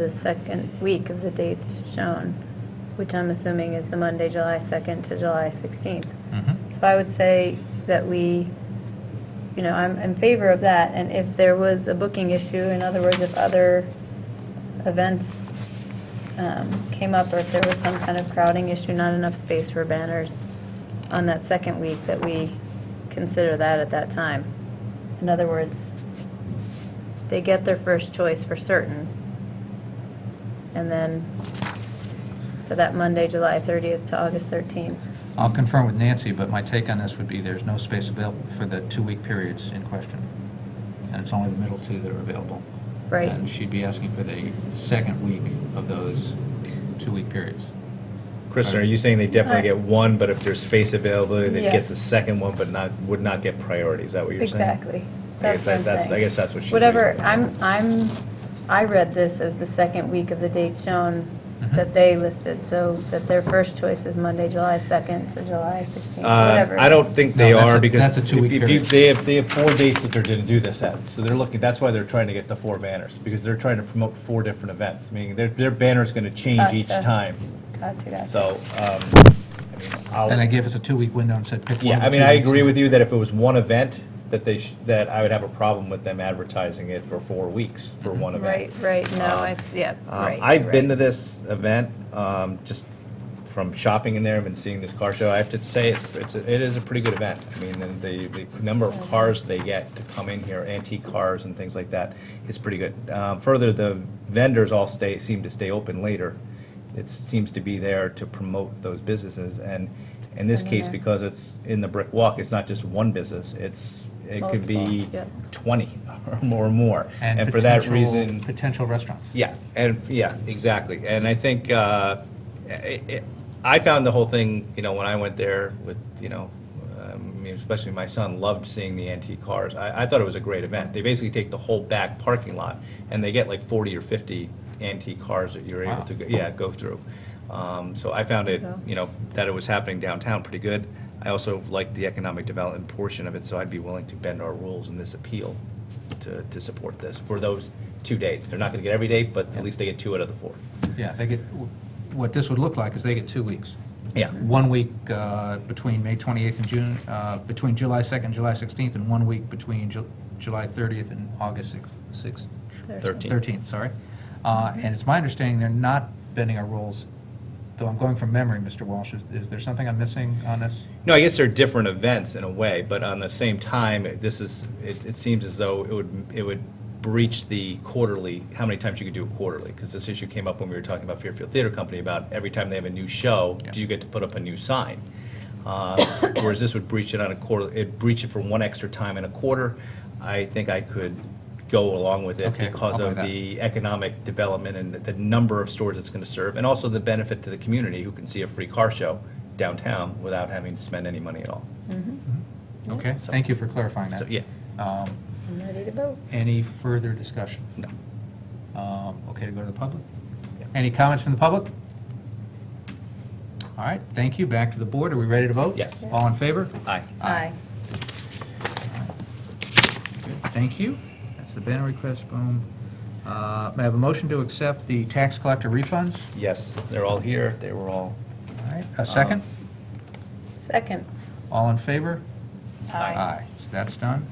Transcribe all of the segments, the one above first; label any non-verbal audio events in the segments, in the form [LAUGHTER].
the second week of the dates shown, which I'm assuming is the Monday, July 2nd to July 16th. Mhm. So I would say that we, you know, I'm in favor of that, and if there was a booking issue, in other words, if other events um, came up, or if there was some kind of crowding issue, not enough space for banners on that second week, that we consider that at that time. In other words, they get their first choice for certain. And then for that Monday, July 30th to August 13th. I'll confirm with Nancy, but my take on this would be there's no space available for the two-week periods in question. And it's only the middle two that are available. Right. And she'd be asking for the second week of those two-week periods. Kristen, are you saying they definitely Alright. get one, but if there's space availability, they'd get Yes. the second one, but not, would not get priority? Is that what you're saying? Exactly. I That's guess what that- I'm that's- saying. I guess that's what she- Whatever, I'm, I'm, I read this as the second week of the dates shown Mm-hmm. Mhm. that they listed, so that their first choice is Monday, July 2nd to July 16th, Uh, whatever. I don't think No, they that's are, a- because that's a if two-week if you, period. they have, they have four dates that they're gonna do this at. So they're looking, that's why they're trying to get the four banners, because they're trying to promote four different events. Meaning their, their banner's gonna change each Gotcha. time. Gotcha, gotcha. So, um, I mean, I'll. And I gave us a two-week window and said, pick one Yeah, of the I mean, two I weeks. agree with you that if it was one event, that they, sh- that I would have a problem with them advertising it for four weeks for one Right, event. right, no, I, yeah, Um, right. I've been to right. this event, um, just from shopping in there and seeing this car show. I have to say, it's, it's, a- it is a pretty good event. I mean, and the, the number of cars they get to come in here, antique cars and things like that, is pretty good. Um, Further, the vendors all stay, seem to stay open later. It seems to be there to promote those businesses. And in this And case, then- because it's in the brick walk, it's not just one business, it's, it could be Multiple, yep. 20 [LAUGHS] or more and more. And for that potential- reason, Potential restaurants. yeah, and, yeah, exactly. And I think, uh, i- i- I found the whole thing, you know, when I went there with, you know, um, I mean, especially my son loved seeing the antique cars. I, I thought it was a great event. They basically take the whole back parking lot and they get like 40 or 50 antique cars that you're able Wow. to, go- yeah, go through. Um, So I found it, There you go. you know, that it was happening downtown pretty good. I also liked the economic development portion of it, so I'd be willing to bend our rules in this appeal to, to support this for those two dates. They're not going to get every date, but at least they get two out of the four. Yeah, they get, what this would look like is they get two weeks. Yeah. One week uh, between May 28th and June, uh, between July 2nd, July 16th, and one week between Ju- July 30th and August 6th. Thirteenth. 13th, sorry. Uh, And it's my understanding they're not bending our rules, though I'm going from memory, Mr. Walsh. Is- Is there something I'm missing on this? No, I guess they're different events in a way, but on the same time, this is, it, it seems as though it would, it would breach the quarterly, how many times you could do a quarterly, because this issue came up when we were talking about Fairfield Theater Company about every time they have a new show, Yeah. do you get to put up a new sign? Uh, Whereas this would breach it on a quarter, it'd breach it for one extra time in a quarter. I think I could go along with it Okay, I'll because buy of that. the economic development and the- the number of stores it's going to serve, and also the benefit to the community who can see a free car show downtown without having to spend any money at all. Mm-hmm. Okay, thank you for clarifying that. So, yeah. Um, I'm ready to vote. Any further discussion? No. Um, Okay to go to the public? Yeah. Any comments from the public? All right, thank you. Back to the board. Are we ready to vote? Yes. All in favor? Aye. Aye. Good, Thank you. That's the banner request, boom. Uh, May I have a motion to accept the tax collector refunds? Yes, they're all here, they were all. All right, a second? Second. All in favor? Aye. So that's done.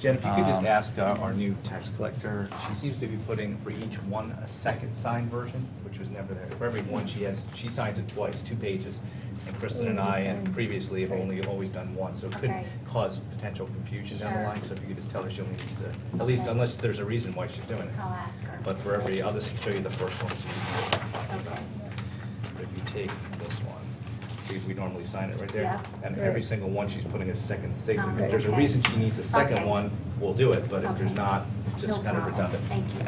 Jen, if you could just Um, ask uh, our new tax collector, she seems to be putting for each one a second signed version, which was never there. For every one, she has, she signs it twice, two pages. And Kristen and I, and previously, have only always done one, so it could Okay. cause potential confusion down the Sure. line. So if you could just tell her she only needs to, at least unless there's a reason why she's doing it. I'll ask her. But for every, I'll just show you the first one, so you can talk about Okay. it. If you take this one, see, we normally sign it right there. Yeah. And every Right. single one, she's putting a second signature. Um, If there's a okay. reason she needs a second Okay. one, we'll do it, but if there's Okay. not, it's just No kind of problem. redundant. Thank you.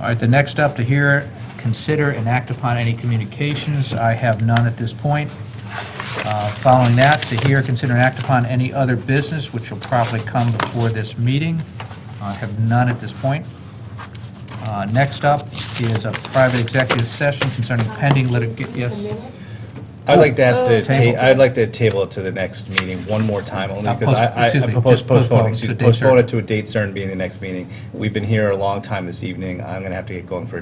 All right, the next up to hear, consider and act upon any communications. I have none at this point. Uh, Following that, to hear, consider and act upon any other business which will probably come before this meeting. I have none at this point. Uh, Next up is a private executive session concerning pending litigation. Uh, Excuse me, the Yes. minutes? I'd like to ask Oh. to, ta- Table. I'd like to table it to the next meeting one more time, only Uh, because post- I, I excuse me, I just post- postpone postpone, to a excuse- date certain. postpone it to a date certain being the next meeting. We've been here a long time this evening, I'm gonna have to get going for a